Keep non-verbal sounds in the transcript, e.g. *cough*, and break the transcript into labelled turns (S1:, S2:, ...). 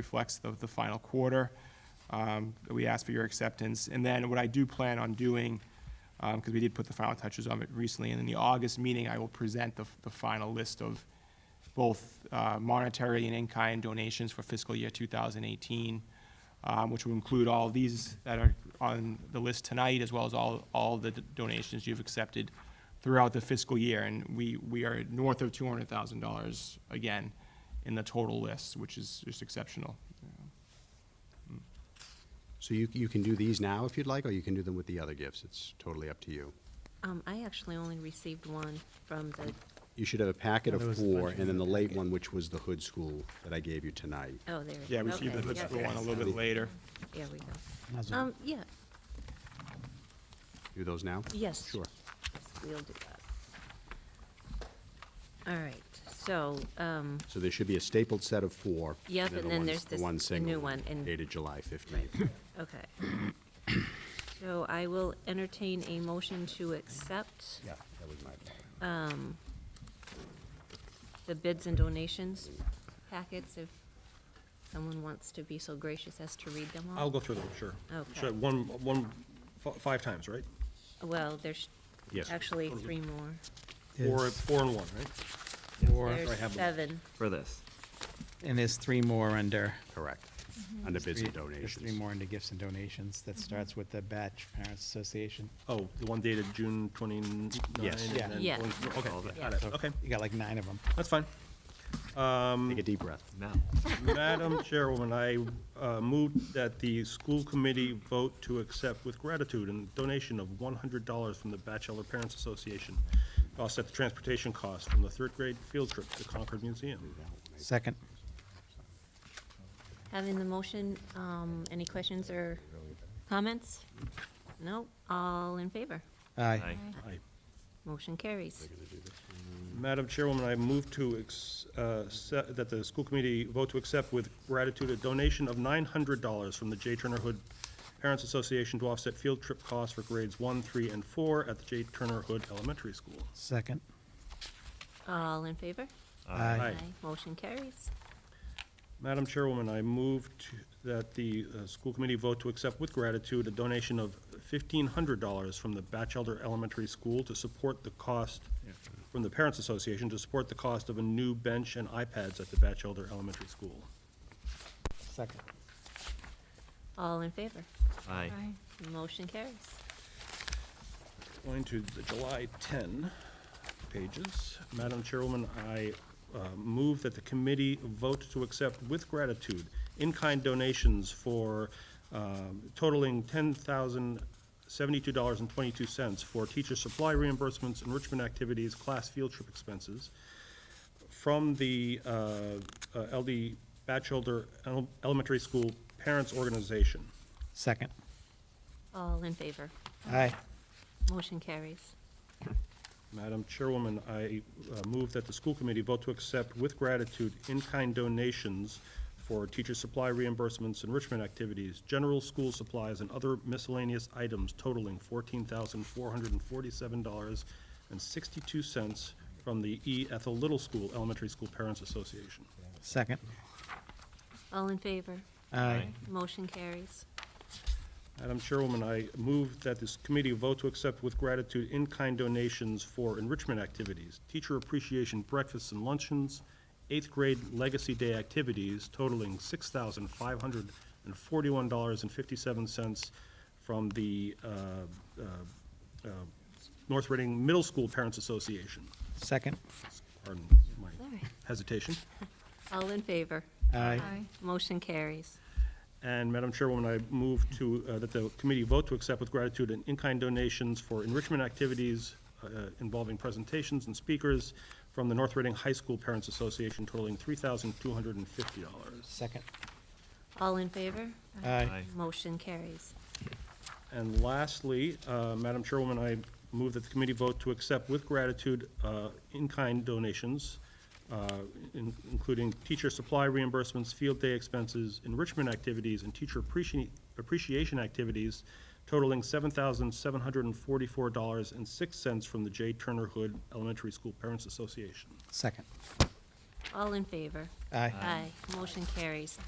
S1: reflects the, the final quarter. Um, We ask for your acceptance. And then what I do plan on doing, because we did put the final touches on it recently, and in the August meeting, I will present the, f- the final list of both uh, monetary and in-kind donations for fiscal year 2018, um, which will include all these that are on the list tonight, as well as all, all the donations you've accepted throughout the fiscal year. And we, we are north of $200,000 again in the total list, which is just exceptional.
S2: So you, you can do these now if you'd like, or you can do them with the other gifts. It's totally up to you.
S3: Um, I actually only received one from the,
S2: You should have a packet of four, and then the late one, which was the hood school that I gave you tonight.
S3: oh, there.
S1: Yeah, we see
S3: okay,
S1: the hood
S3: yeah,
S1: school one a little bit later.
S3: There we go.
S4: Mazel.
S3: Um, yeah,
S2: Do those now?
S3: yes.
S2: Sure.
S3: We'll do that. All right, so, um,
S2: So there should be a stapled set of four.
S3: Yep, and
S2: the
S3: then
S2: ones-
S3: there's this-
S2: The one
S3: the
S2: single.
S3: new one, and-
S2: Dated July fifteenth.
S3: okay. *coughs* So I will entertain a motion to accept
S2: *laughs* Yeah, that was my fault.
S3: the bids and donations packets if someone wants to be so gracious as to read them all.
S4: I'll go through them, sure.
S3: Okay.
S4: Should I- One, one, fi- five times, right?
S3: Well, there's
S2: Yes.
S3: actually three more.
S4: Four, four and one, right?
S5: Four,
S4: I
S3: There's
S4: have them.
S3: seven.
S5: for this.
S6: And there's three more under.
S2: Correct.
S3: Mm-hmm.
S2: Under bids and
S6: three- There's
S2: donations.
S6: three more under gifts and donations. That starts with the Batch Parents Association.
S4: Oh, the one dated June twenty-nine?
S2: Yes.
S4: and
S6: Yeah.
S4: then
S3: Yeah.
S4: one- Okay, got
S3: Yeah.
S4: it, okay,
S6: You got like nine of them.
S4: that's fine.
S2: Take a deep breath.
S5: No.
S4: Madam *laughs* Chairwoman, I uh, move that the school committee vote to accept with gratitude and donation of one hundred dollars from the Bachelor Parents Association to offset the transportation costs from the third grade field trip to Concord Museum.
S6: Second.
S3: Having the motion, um, any questions or comments? No? All in favor?
S6: Aye.
S5: Aye.
S4: Aye.
S3: Motion carries.
S4: Madam Chairwoman, I move to, ex- uh, se- that the school committee vote to accept with gratitude a donation of $900 from the J. Turner Hood Parents Association to offset field trip costs for grades 1, 3, and 4 at the J. Turner Hood Elementary School.
S6: Second.
S3: All in favor?
S4: Aye.
S3: Motion carries.
S4: Madam Chairwoman, I move to- that the uh, school committee vote to accept with gratitude a donation of $1,500 from the Batchelder Elementary School to support the cost, from the Parents Association to support the cost of a new bench and iPads at the Batchelder Elementary School.
S6: Second.
S3: All in favor?
S5: Aye.
S3: Motion carries.
S4: Going to the July 10 pages. Madam Chairwoman, I uh, move that the committee vote to accept with gratitude in-kind donations for um, totaling $10,072.22 for teacher supply reimbursements, enrichment activities, class field trip expenses from the uh, uh, LD Batchelder Ele- Elementary School Parents Organization.
S6: Second.
S3: All in favor?
S6: Aye.
S3: Motion carries.
S4: Madam Chairwoman, I uh, move that the school committee vote to accept with gratitude in-kind donations for teacher supply reimbursements, enrichment activities, general school supplies, and other miscellaneous items totaling fourteen thousand four hundred and forty-seven dollars and sixty-two cents from the E. Ethel Little School Elementary School Parents Association.
S6: Second.
S3: All in favor?
S6: Aye.
S3: Motion carries.
S4: Madam Chairwoman, I move that this committee vote to accept with gratitude in-kind donations for enrichment activities, teacher appreciation breakfasts and luncheons, eighth grade legacy day activities totaling six thousand five hundred and forty-one dollars and fifty-seven cents from the uh, uh, uh, North Reading Middle School Parents Association.
S6: Second.
S4: Pardon my
S3: Sorry.
S4: hesitation.
S3: All in favor?
S6: Aye.
S3: Motion carries.
S4: And Madam Chairwoman, I move to, uh, that the committee vote to accept with gratitude an in-kind donations for enrichment activities uh, involving presentations and speakers from the North Reading High School Parents Association totaling $3,250.
S6: Second.
S3: All in favor?
S6: Aye.
S5: Aye.
S3: Motion carries.
S4: And lastly, uh, Madam Chairwoman, I move that the committee vote to accept with gratitude uh, in-kind donations, uh, in- including teacher supply reimbursements, field day expenses, enrichment activities, and teacher appreci- appreciation activities totaling $7,744.06 from the J. Turner Hood Elementary School Parents Association.
S6: Second.
S3: All in favor?
S6: Aye.
S3: Aye. Motion carries.